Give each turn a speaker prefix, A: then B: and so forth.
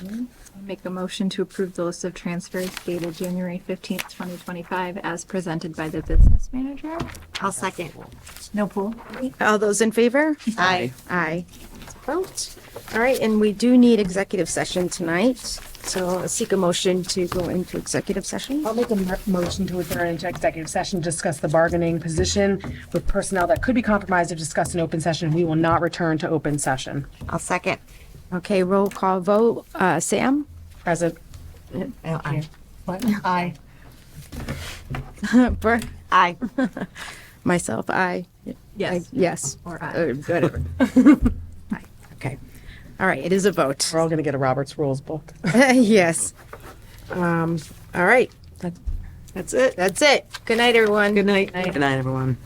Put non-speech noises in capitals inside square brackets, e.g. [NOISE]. A: I Make a motion to approve the list of transfers dated January fifteenth, twenty twenty-five as presented by the business manager.
B: I'll second.
A: No pool.
B: All those in favor?
C: Aye.
B: Aye. Vote. All right, and we do need executive session tonight, so I'll seek a motion to go into executive session.
D: I'll make a mer- motion to adjourn into executive session, to discuss the bargaining position with personnel that could be compromised if discussed in open session. We will not return to open session.
C: I'll second.
B: Okay, roll call vote. Uh, Sam?
D: Present.
C: Oh, Aye.
D: Uh, What? Aye.
B: Brooke?
C: Aye.
B: [LAUGHS] Myself, aye.
A: Yes.
B: Yes.
A: Or aye.
B: Uh, Whatever.
D: Okay.
B: All right, it is a vote.
D: We're all going to get a Roberts Rules book.
B: [LAUGHS] Yes. Um, all right. That- That's it. That's it. Good night, everyone.
C: Good night, everyone.